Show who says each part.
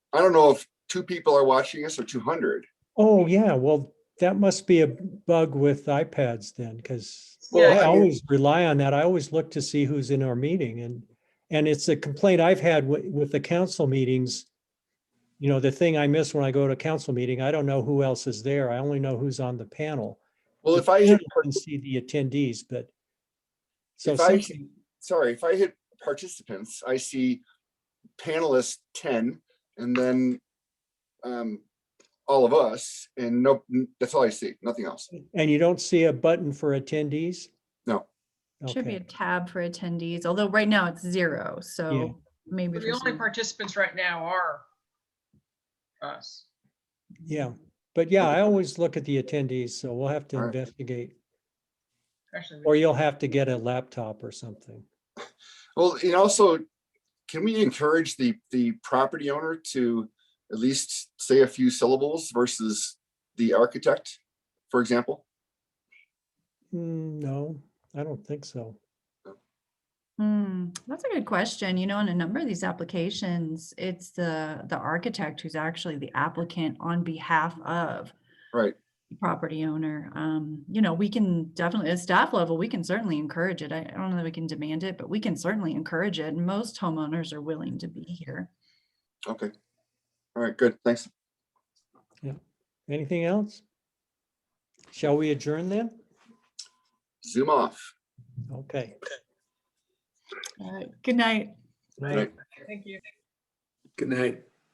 Speaker 1: I don't know if two people are watching us or two hundred.
Speaker 2: Oh, yeah, well, that must be a bug with iPads then, because
Speaker 1: Well,
Speaker 2: I
Speaker 1: I mean-
Speaker 2: always rely on that. I always look to see who's in our meeting and, and it's a complaint I've had with, with the council meetings. You know, the thing I miss when I go to a council meeting, I don't know who else is there. I only know who's on the panel.
Speaker 1: Well,
Speaker 2: The
Speaker 1: if I
Speaker 2: panel
Speaker 1: hit, par-
Speaker 2: Can see the attendees, but. So
Speaker 1: if I,
Speaker 2: some-
Speaker 1: hit- sorry, if I hit participants, I see panelists ten and then um, all of us and no, that's all I see, nothing else.
Speaker 2: and you don't see a button for attendees?
Speaker 1: No.
Speaker 3: Should be a
Speaker 2: Okay,
Speaker 3: tab for attendees, although right now it's zero, so maybe.
Speaker 4: The
Speaker 3: for
Speaker 4: only
Speaker 3: some-
Speaker 4: participants right now are us.
Speaker 2: yeah, but yeah, I always look at the attendees, so we'll have to
Speaker 1: All right.
Speaker 2: investigate.
Speaker 4: Actually,
Speaker 2: Or you'll have to get a laptop or something.
Speaker 1: Well, and also, can we encourage the, the property owner to at least say a few syllables versus the architect, for example?
Speaker 2: Mm, No, I don't think so.
Speaker 3: Hmm, that's a good question. You know, in a number of these applications, it's the, the architect who's actually the applicant on behalf of
Speaker 1: Right,
Speaker 3: the property owner. Um, you know, we can definitely, at staff level, we can certainly encourage it. I I don't know that we can demand it, but we can certainly encourage it. And Most homeowners are willing to be here.
Speaker 1: okay. All right, good, thanks.
Speaker 2: Anything else? Shall we adjourn then?
Speaker 1: Zoom off.
Speaker 2: Okay.
Speaker 3: All right. Good night.
Speaker 1: Right.
Speaker 4: Thank you.
Speaker 5: Good night.